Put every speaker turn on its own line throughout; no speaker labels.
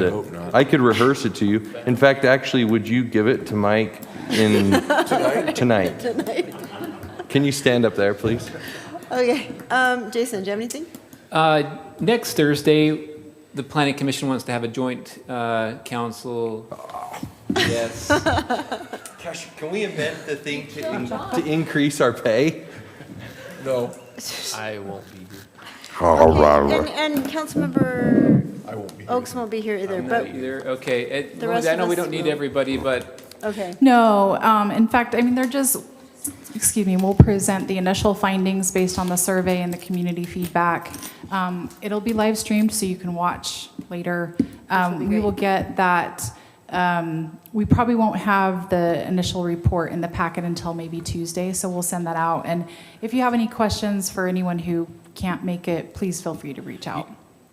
it.
hope not.
I could rehearse it to you. In fact, actually, would you give it to Mike in tonight? Can you stand up there, please?
Okay, um, Jason, do you have anything?
Uh, Next Thursday, the planning commission wants to have a joint uh, council. Yes.
Gosh, can we invent the thing to, in- to increase our pay?
No,
I won't be here.
All right. And, and Councilmember
I won't be here.
Oaks won't be here either,
Not
but,
either, okay. it-
The rest
I
of
know we
us
don't need
will-
everybody, but
okay.
No, um, in fact, I mean, they're just, excuse me, we'll present the initial findings based on the survey and the community feedback. Um, it'll be live streamed, so you can watch later. Um, we will get that, um, we probably won't have the initial report in the packet until maybe Tuesday, so we'll send that out. And if you have any questions for anyone who can't make it, please feel free to reach out.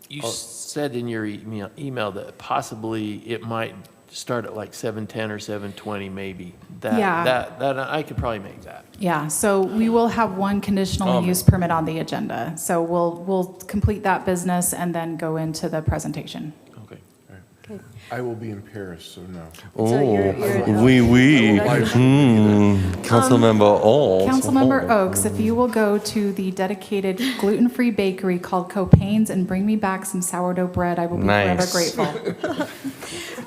You said in your email, email that possibly it might start at like seven ten or seven twenty, maybe. That,
Yeah.
That, that, I could probably make that.
Yeah, so we will have one conditional use permit on the agenda. So we'll, we'll complete that business and then go into the presentation.
Okay.
I will be in Paris, so no.
So you're- you're-
Wee wee.
Live
Councilmember Hmm. Olds. Oh,
Councilmember Oaks, if you will go to the dedicated gluten-free bakery called Copain's and bring me back some sourdough bread, I will be forever
Nice.
grateful.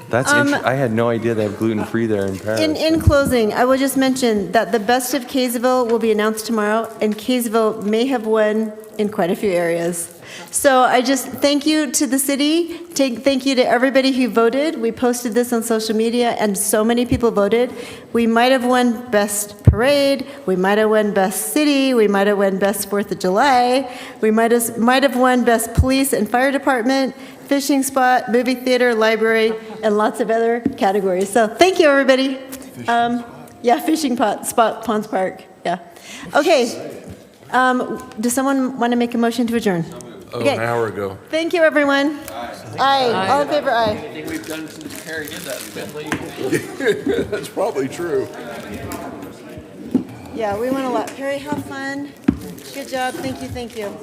That's, inter- I had no idea they have gluten-free there in
In,
Paris.
in closing, I will just mention that the best of Kaysville will be announced tomorrow, and Kaysville may have won in quite a few areas. So I just thank you to the city, take, thank you to everybody who voted. We posted this on social media, and so many people voted. We might have won best parade, we might have won best city, we might have won best Fourth of July, we might have, might have won best police and fire department, fishing spot, movie theater, library, and lots of other categories. So thank you, everybody. Um, Yeah, fishing pot, spot, Ponds Park, yeah. Okay. Um, Does someone want to make a motion to adjourn?
Oh,
Okay.
an hour ago.
Thank you, everyone. Aye. All in favor, aye.
That's probably true.
Yeah, we won a lot. Perry, have fun. Good job. Thank you, thank you.